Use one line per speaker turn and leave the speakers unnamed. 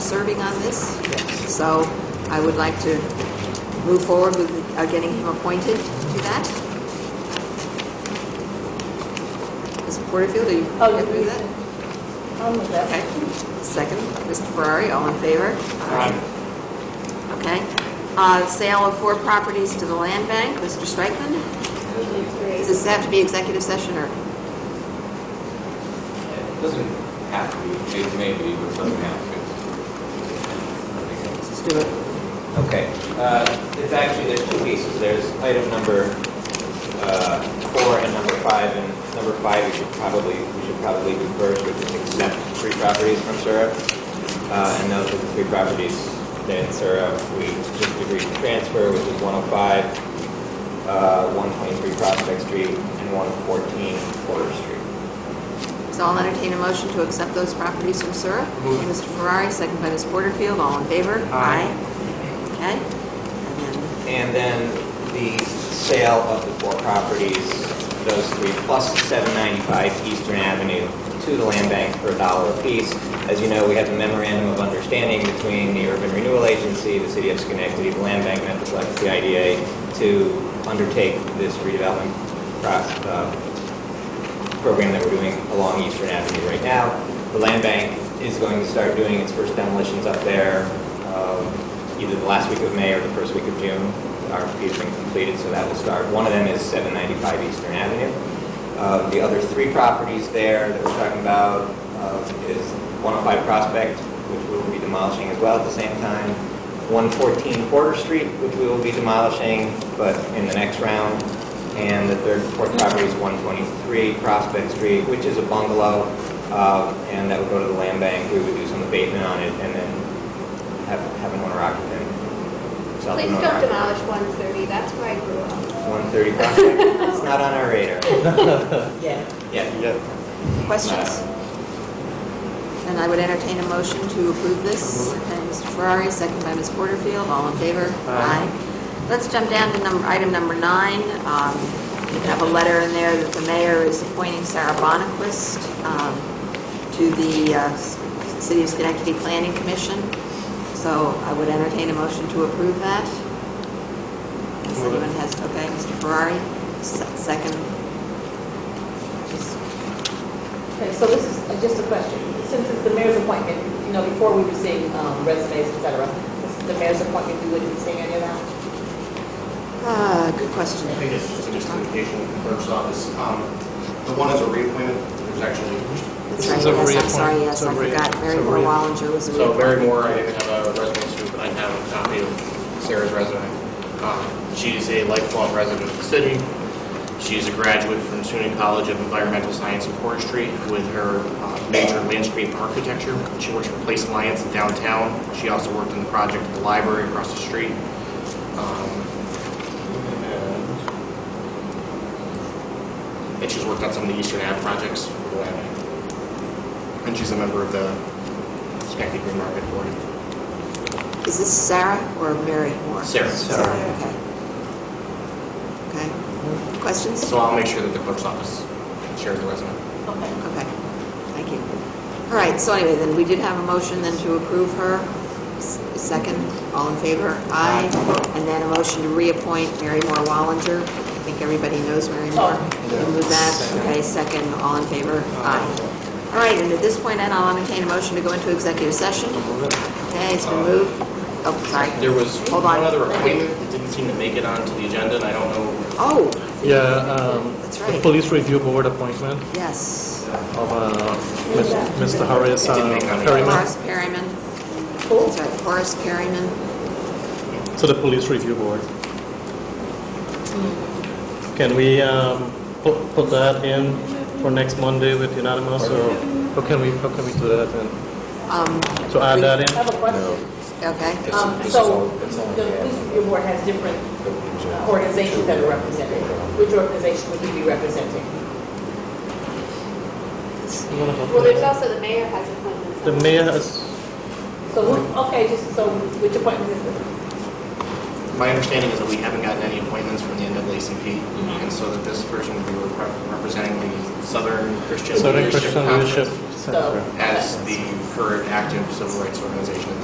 serving on this. So I would like to move forward with uh, getting him appointed to that. Mr. Porterfield, are you
Oh,
good with
you-
that?
I'm with that.
Okay. Second, Mr. Ferrari, all in favor?
Aye.
Okay. Uh, Sale of four properties to the land bank, Mr. Strikeman.
Usually
Does
three.
this have to be executive session or?
It doesn't have to be, it may be, but it doesn't have
Let's do it.
to. Okay, uh, it's actually, there's two pieces, there's item number, uh, four and number five, and number five, we should probably, we should probably do first, which is exempt three properties from SURA. Uh, and those are the three properties that in SURA, we just agreed to transfer, which is one oh five, uh, one twenty-three Prospect Street, and one fourteen Porter Street.
So I'll entertain a motion to accept those properties from Sura. Mr. Ferrari, second by Ms. Porterfield, all in favor?
Aye.
Okay. And then
And then the sale of the four properties, those three, plus 795 Eastern Avenue to the land bank for a dollar apiece. As you know, we have a memorandum of understanding between the Urban Renewal Agency, the City of Schenectady, the land bank, Metroplex, the IDA, to undertake this redevelopment proc- uh, program that we're doing along Eastern Avenue right now. The land bank is going to start doing its first demolitions up there um, either the last week of May or the first week of June. Our RFP has been completed, so that will start. One of them is 795 Eastern Avenue. Uh, The other three properties there that we're talking about uh, is 105 Prospect, which we will be demolishing as well at the same time, 114 Porter Street, which we will be demolishing, but in the next round, and the third and fourth property is 123 Prospect Street, which is a bungalow, um, and that would go to the land bank. We would do some abatement on it and then have have an owner occupant. sell to an
Please
owner occupant.
don't demolish 130, that's where I grew up.
130 Prospect, it's not on our radar. Yeah.
Questions? And I would entertain a motion to approve this. And Mr. Ferrari, second by Ms. Porterfield, all in favor? Aye. Let's jump down to number, item number nine. Um, We have a letter in there that the mayor is appointing Sarah Bonnequist um, to the uh, S- City of Schenectady Planning Commission. So I would entertain a motion to approve that. If
Move it.
anyone has, okay, Mr. Ferrari, se- second. Just
Okay, so this is uh, just a question. Since it's the mayor's appointment, you know, before we were seeing um, resumes, et cetera, this is the mayor's appointment, we wouldn't be seeing any of that?
Ah, good question.
I think it's just a miscommunication with the clerk's office. Um, The one is a reappointment, there's actually,
That's
This
right,
is a
yes, I'm sorry,
reappointment.
yes,
It's a
I
rea-
forgot.
it's a
Mary Moore
rea-
Wallinger was a
so Mary
reappointment.
Moore, I didn't have a resume to, but I have a copy of Sarah's resume. Um, She's a lifelong resident of the city. She's a graduate from SUNY College of Environmental Science and Forestry with her uh, major in landscape architecture. She works for Place Alliance in downtown. She also worked on the project at the library across the street. Um, And she's worked on some of the Eastern Ave projects. for the Lab. And she's a member of the Schenectady Green Market Board.
Is this Sarah or Mary Moore?
Sarah.
Sarah, okay. Okay. Questions?
So I'll make sure that the clerk's office shares the resume.
Okay.
Okay, thank you. All right, so anyway, then we did have a motion then to approve her. S- Second, all in favor? Aye. And then a motion to reappoint Mary Moore Wallinger. I think everybody knows Mary Moore. We'll move that. Okay, second, all in favor? Aye. All right, and at this point, then I'll entertain a motion to go into executive session. Okay, it's been moved. Oh, sorry.
There was
Hold
one
on.
other appointment that didn't seem to make it onto the agenda, and I don't know,
Oh,
Yeah, um,
That's
the
right.
police review board appointment
yes.
of uh, Mis- Mr. Horace uh,
It didn't make it on the-
Perryman
Horace Perryman. That's right, Horace Perryman.
to the police review board. Can we um, pu- put that in for next Monday with unanimous, or how can we, how can we do that then?
Um,
So add that
I
in?
have a question.
Okay.
Um, So the police review board has different uh, organizations that are represented. Which organization would you be representing?
Well, there's also the mayor has appointments.
The mayor has,
So, who- okay, just so which appointment is it?
my understanding is that we haven't gotten any appointments from the NAACP, and so that this person would be rep- representing the Southern Christian
Southern
Leadership
Christian Leadership
Conference
Center.
as the current active civil rights organization in the